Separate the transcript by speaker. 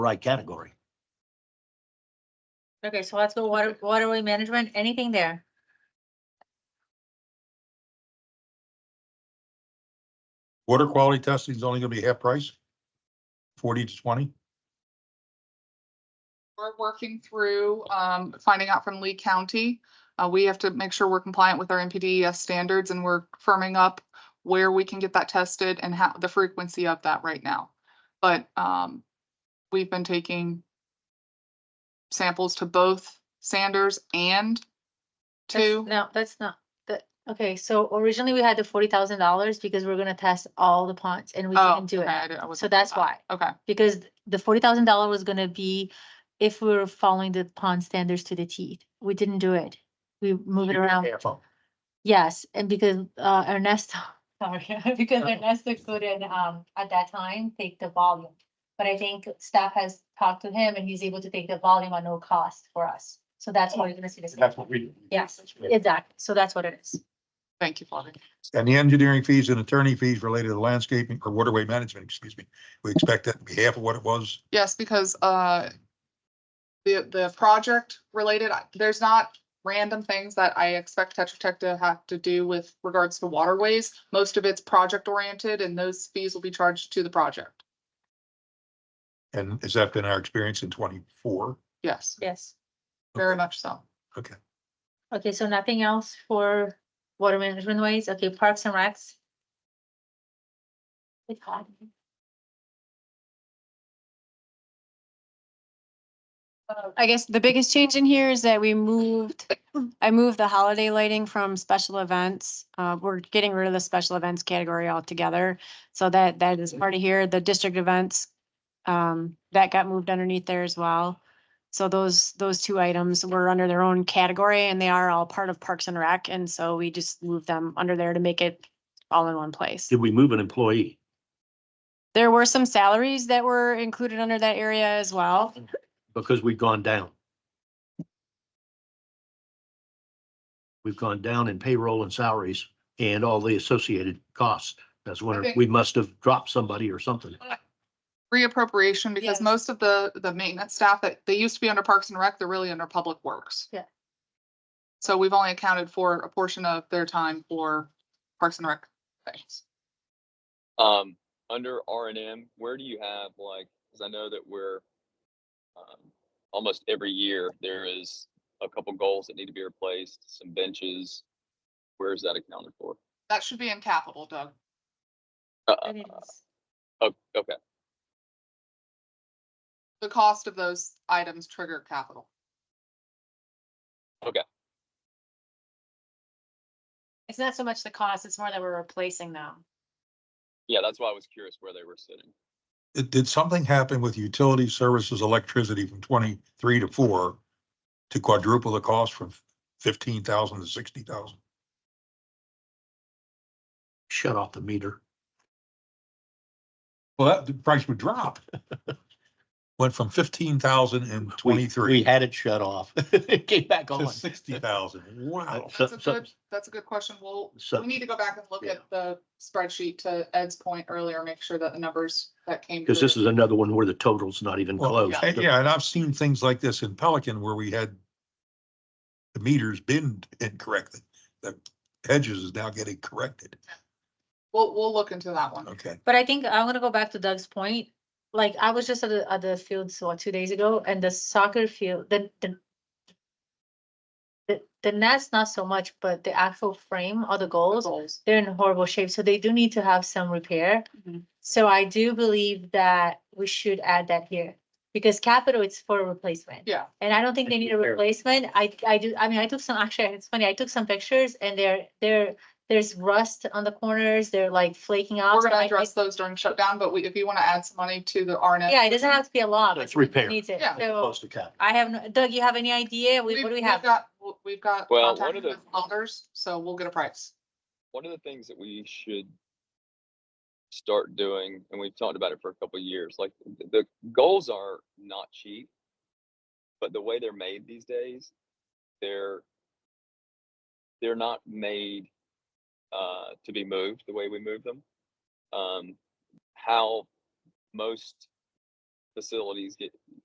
Speaker 1: right category.
Speaker 2: Okay, so let's go water, waterway management, anything there?
Speaker 3: Water quality testing is only gonna be half price? Forty to twenty?
Speaker 4: We're working through um, finding out from Lee County. Uh, We have to make sure we're compliant with our NPDES E standards and we're firming up where we can get that tested and how, the frequency of that right now. But um, we've been taking samples to both Sanders and
Speaker 2: That's-
Speaker 4: to,
Speaker 2: No, that's not, that, okay, so originally we had the forty thousand dollars because we're gonna test all the ponds and we
Speaker 4: oh,
Speaker 2: didn't do
Speaker 4: okay, I
Speaker 2: it.
Speaker 4: did- I wasn't
Speaker 2: So
Speaker 4: aware
Speaker 2: that's
Speaker 4: of that.
Speaker 2: why,
Speaker 4: Okay,
Speaker 2: because the forty thousand dollar was gonna be if we were following the pond standards to the teeth. We didn't do it. We move it around.
Speaker 1: Half of.
Speaker 2: Yes, and because uh Ernesto, sorry, because
Speaker 1: No.
Speaker 2: Ernesto couldn't um at that time take the volume. But I think staff has talked to him and he's able to take the volume at no cost for us. So that's why you're gonna see this.
Speaker 1: That's what we. do.
Speaker 2: Yes, exactly. So that's what it is.
Speaker 4: thank you, Flavia.
Speaker 3: And the engineering fees and attorney fees related to landscaping or waterway management, excuse me. We expect that to be half of what it was.
Speaker 4: Yes, because uh, the, the project related, I- there's not random things that I expect Tetra Tech to have to do with regards to waterways. Most of it's project oriented and those fees will be charged to the project.
Speaker 3: And has that been our experience in twenty-four?
Speaker 4: Yes,
Speaker 2: Yes.
Speaker 4: very much so.
Speaker 2: Okay, so nothing else for water management ways? Okay, parks and recs? It's hot.
Speaker 5: Uh, I guess the biggest change in here is that we moved, I moved the holiday lighting from special events. Uh, we're getting rid of the special events category altogether. So that, that is part of here, the district events. Um, that got moved underneath there as well. So those, those two items were under their own category and they are all part of Parks and Rec. And so we just moved them under there to make it all in one place.
Speaker 1: Did we move an employee?
Speaker 5: There were some salaries that were included under that area as well.
Speaker 1: Because we've gone down. We've gone down in payroll and salaries and all the associated costs. That's when
Speaker 4: Okay.
Speaker 1: we must have dropped somebody or something.
Speaker 4: Reappropriation because
Speaker 5: Yes.
Speaker 4: most of the, the maintenance staff that they used to be under Parks and Rec, they're really under Public Works.
Speaker 2: Yeah.
Speaker 4: So we've only accounted for a portion of their time for Parks and Rec things.
Speaker 6: Um, under R and M, where do you have like, cause I know that we're, um, almost every year, there is a couple goals that need to be replaced, some benches. Where is that accounted for?
Speaker 4: That should be in capital, Doug.
Speaker 6: Uh,
Speaker 2: It is.
Speaker 6: oh, okay,
Speaker 4: The cost of those items trigger capital.
Speaker 5: It's not so much the cost, it's more that we're replacing them.
Speaker 6: yeah, that's why I was curious where they were sitting.
Speaker 3: Did, did something happen with utility services electricity from twenty-three to four to quadruple the cost from fifteen thousand to sixty thousand?
Speaker 1: Shut off the meter.
Speaker 3: Well, that, the price would drop. Went from fifteen thousand and
Speaker 1: We- We
Speaker 3: twenty-three
Speaker 1: had it shut off. It came back on.
Speaker 3: to sixty thousand. Wow.
Speaker 1: So-
Speaker 4: That's a
Speaker 1: so-
Speaker 4: good, that's a good question. We'll
Speaker 1: So-
Speaker 4: we need to go back and look at the spreadsheet to Ed's point earlier, make sure that the numbers that came.
Speaker 1: Because
Speaker 4: through-
Speaker 1: this is another one where the total's not even
Speaker 3: Well,
Speaker 1: close.
Speaker 3: and- Yeah, and I've seen things like this in Pelican where we had the meters been incorrectly. The hedges is now getting corrected.
Speaker 4: We'll, we'll look into that one.
Speaker 3: Okay.
Speaker 2: But I think I'm gonna go back to Doug's point. Like, I was just at the, at the field, so what, two days ago, and the soccer field, the, the. The, the net's not so much, but the actual frame or the goals,
Speaker 4: Goals.
Speaker 2: they're in horrible shape, so they do need to have some repair.
Speaker 4: Mm-hmm.
Speaker 5: Mhm.
Speaker 2: So I do believe that we should add that here, because capital it's for replacement.
Speaker 4: Yeah,
Speaker 2: And I don't think they need a
Speaker 1: Repair.
Speaker 2: replacement. I, I do, I mean, I took some, actually, it's funny, I took some pictures and they're, they're, there's rust on the corners, they're like flaking off.
Speaker 4: we're
Speaker 2: so I-
Speaker 4: gonna
Speaker 2: I-
Speaker 4: address those during shutdown, but we, if you want to add some money to the RNS.
Speaker 2: Yeah, it doesn't have to be a lot. but
Speaker 1: It's
Speaker 2: someone
Speaker 1: repair.
Speaker 2: Needs it.
Speaker 4: Yeah.
Speaker 2: So
Speaker 1: Close to cap.
Speaker 2: I have, no Doug, you have any idea? We-
Speaker 4: We've-
Speaker 2: What do we
Speaker 4: we've
Speaker 2: have?
Speaker 4: got- We've got
Speaker 6: Well, one
Speaker 4: contacted
Speaker 6: of the-
Speaker 4: with others, so we'll get a price.
Speaker 6: One of the things that we should start doing, and we've talked about it for a couple of years, like th- the goals are not cheap, but the way they're made these days, they're they're not made uh, to be moved the way we move them. Um, how most facilities get